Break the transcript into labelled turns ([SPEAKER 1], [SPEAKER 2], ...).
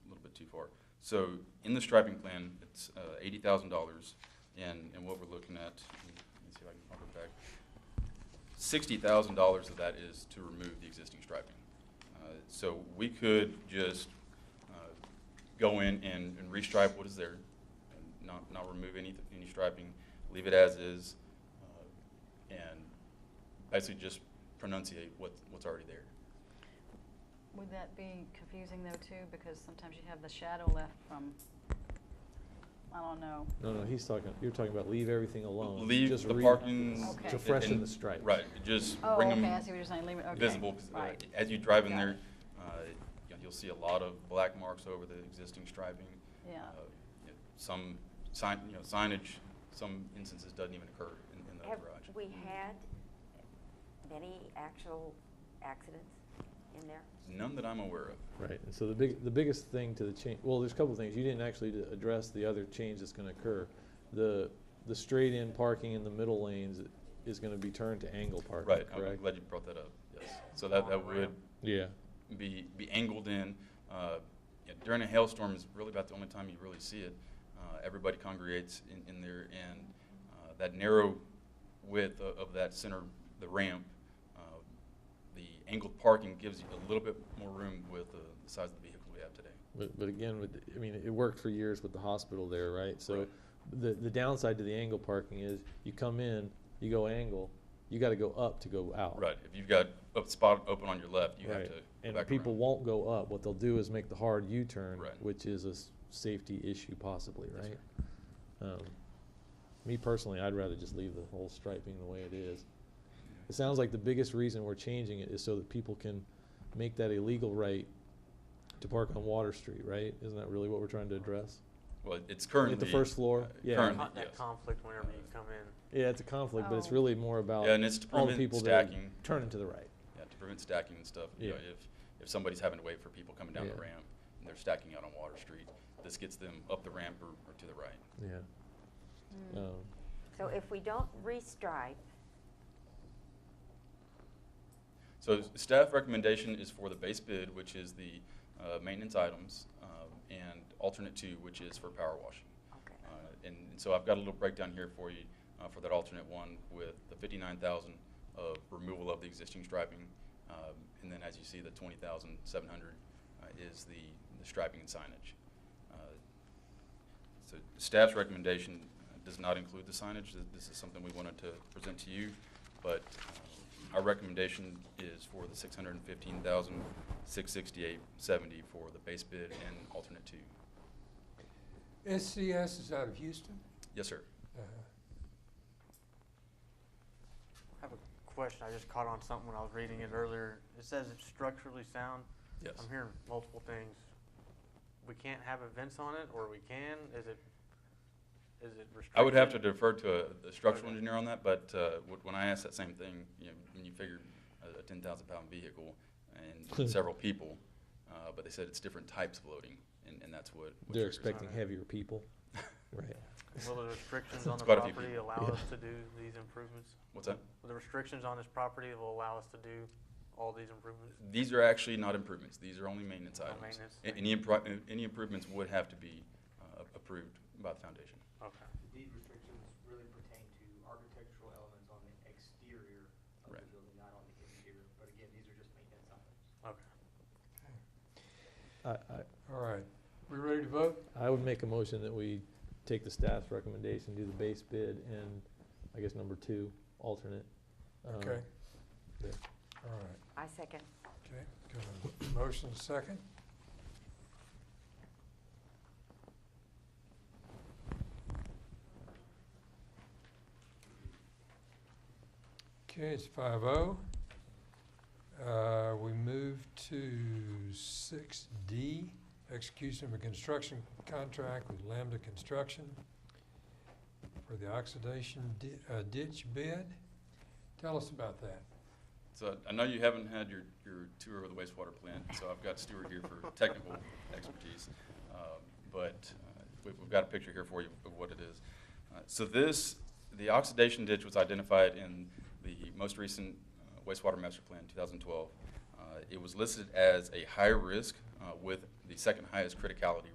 [SPEAKER 1] too far. So in the striping plan, it's uh, eighty thousand dollars, and, and what we're looking at, let me see if I can pump it back. Sixty thousand dollars of that is to remove the existing striping. Uh, So we could just uh, go in and, and restripe what is there, and not, not remove any, any striping, leave it as is, uh, and basically just pronunciate what, what's already there.
[SPEAKER 2] Would that be confusing though too, because sometimes you have the shadow left from, I don't know.
[SPEAKER 3] No, no, he's talking, you're talking about leave everything alone.
[SPEAKER 1] Leave
[SPEAKER 3] Just
[SPEAKER 1] the
[SPEAKER 3] re-
[SPEAKER 1] parking.
[SPEAKER 2] Okay.
[SPEAKER 3] To
[SPEAKER 2] and-
[SPEAKER 3] freshen
[SPEAKER 1] and-
[SPEAKER 3] the stripes.
[SPEAKER 1] Right, just
[SPEAKER 2] Oh,
[SPEAKER 1] bring
[SPEAKER 2] okay, I see what
[SPEAKER 1] them
[SPEAKER 2] you're saying, leave it, okay.
[SPEAKER 1] visible. 'cause, uh,
[SPEAKER 2] Right.
[SPEAKER 1] As you drive in
[SPEAKER 2] Got
[SPEAKER 1] there,
[SPEAKER 2] it.
[SPEAKER 1] uh, you know, you'll see a lot of black marks over the existing striping.
[SPEAKER 2] Yeah.
[SPEAKER 1] Uh, yeah, Some sign, you know, signage, some instances doesn't even occur in, in the
[SPEAKER 4] Have
[SPEAKER 1] garage.
[SPEAKER 4] we had many actual accidents in there?
[SPEAKER 1] None that I'm aware of.
[SPEAKER 3] Right, and so the big, the biggest thing to the change, well, there's a couple of things, you didn't actually d- address the other change that's gonna occur. The, the straight-in parking in the middle lanes is gonna be turned to angle parking,
[SPEAKER 1] Right, I'm
[SPEAKER 3] correct?
[SPEAKER 1] glad you brought that up, yes. So that, that would
[SPEAKER 3] Yeah,
[SPEAKER 1] be, be angled in. Uh, yeah, during a hailstorm is really about the only time you really see it. Uh, everybody congregates in, in there, and uh, that narrow width of, of that center, the ramp, uh, the angled parking gives you a little bit more room with the, the size of the vehicle we have today.
[SPEAKER 3] but, but again, with, the- I mean, it worked for years with the hospital there, right? So
[SPEAKER 1] Right.
[SPEAKER 3] the, the downside to the angle parking is, you come in, you go angle, you gotta go up to go out.
[SPEAKER 1] Right. If you've got a spot open on your left, you have
[SPEAKER 3] Oh. Right,
[SPEAKER 1] to. go
[SPEAKER 3] And
[SPEAKER 1] back
[SPEAKER 3] people
[SPEAKER 1] around.
[SPEAKER 3] won't go up. What they'll do is make the hard U-turn,
[SPEAKER 1] Right.
[SPEAKER 3] which is a s- safety issue possibly,
[SPEAKER 1] Yes,
[SPEAKER 3] right? Um, Me personally, I'd rather just leave the whole striping the way it is. It sounds like the biggest reason we're changing it is so that people can make that illegal right to park on Water Street, right? Isn't that really what we're trying to address?
[SPEAKER 1] Well, it's currently
[SPEAKER 3] first floor?
[SPEAKER 1] uh,
[SPEAKER 3] Yeah.
[SPEAKER 1] Currently,
[SPEAKER 5] Con- That
[SPEAKER 1] yes.
[SPEAKER 5] conflict whenever you come in.
[SPEAKER 3] Yeah, it's a conflict, but it's
[SPEAKER 2] Oh.
[SPEAKER 3] really more about
[SPEAKER 1] Yeah, and it's to
[SPEAKER 3] all the
[SPEAKER 1] prevent
[SPEAKER 3] people that are
[SPEAKER 1] stacking.
[SPEAKER 3] turning to the right.
[SPEAKER 1] Yeah, to prevent stacking and stuff. You know,
[SPEAKER 3] Yeah.
[SPEAKER 1] if, if somebody's having to wait for people coming down the
[SPEAKER 3] Yeah.
[SPEAKER 1] ramp and they're stacking out on Water Street, this gets them up the ramp or, or to the right.
[SPEAKER 3] Yeah.
[SPEAKER 2] Mm.
[SPEAKER 3] Um,
[SPEAKER 4] So if we don't restripe,
[SPEAKER 1] So s- staff recommendation is for the base bid, which is the uh, maintenance items, um, and alternate two, which is for power washing.
[SPEAKER 4] okay,
[SPEAKER 1] Uh, And and so I've got a little breakdown here for you uh, for that alternate one with the 59,000 of removal of the existing striping. um, And then as you see, the 20,700 uh, is the the striping and signage. Uh, So staff's recommendation uh, does not include the signage. Th- This is something we wanted to present to you. But uh, our recommendation is for the 615,668.70 for the base bid and alternate two.
[SPEAKER 6] SCS is out of Houston. Uh-huh.
[SPEAKER 1] Yes, sir.
[SPEAKER 5] I have a question. I just caught on something when I was reading it earlier. It says it's structurally sound.
[SPEAKER 1] Yes.
[SPEAKER 5] I'm hearing multiple things. We can't have events on it, or we can? Is it, is it restricted?
[SPEAKER 1] I would have to defer to a- a structural
[SPEAKER 5] Okay.
[SPEAKER 1] engineer on that, but uh, wh- when I asked that same thing, you know, when you figure a- a 10,000-pound vehicle and several people, uh, but they said it's different types of loading, and and that's what. what
[SPEAKER 3] They're
[SPEAKER 1] triggers it.
[SPEAKER 3] expecting
[SPEAKER 5] Alright.
[SPEAKER 3] heavier people, right?
[SPEAKER 5] Will the restrictions on
[SPEAKER 1] It's
[SPEAKER 5] the
[SPEAKER 1] quite a few
[SPEAKER 5] property
[SPEAKER 1] people.
[SPEAKER 5] allow
[SPEAKER 3] Yeah.
[SPEAKER 5] us to do these improvements?
[SPEAKER 1] What's that?
[SPEAKER 5] Will the restrictions on this property will allow us to do all these improvements?
[SPEAKER 1] These are actually not improvements. These are only maintenance
[SPEAKER 5] Oh,
[SPEAKER 1] items.
[SPEAKER 5] maintenance.
[SPEAKER 1] A- Any impro- any improvements would have to be uh, approved by the foundation.
[SPEAKER 5] Okay.
[SPEAKER 7] The deed restrictions really pertain to architectural elements on the exterior of the
[SPEAKER 1] Right.
[SPEAKER 7] building, not on the interior. But again, these are just maintenance items.
[SPEAKER 3] I,
[SPEAKER 5] Okay.
[SPEAKER 3] I,
[SPEAKER 6] All right, we ready to vote?
[SPEAKER 3] I would make a motion that we take the staff's recommendation, do the base bid and I guess number two, alternate. Um,
[SPEAKER 6] Okay.
[SPEAKER 3] yeah.
[SPEAKER 6] All right,
[SPEAKER 4] I second.
[SPEAKER 6] okay, got a motion and a second. Okay, it's five oh. Uh, we move to six D, execution of a construction contract with Lambda Construction for the oxidation di- uh, ditch bid. Tell us about that.
[SPEAKER 1] So I know you haven't had your, your tour of the wastewater plant, so I've got Stuart here for technical expertise. Um, But uh, we- we've got a picture here for you of what it is. Uh, So this, the oxidation ditch was identified in the most recent uh, wastewater master plan, 2012. Uh, It was listed as a high risk uh, with the second highest criticality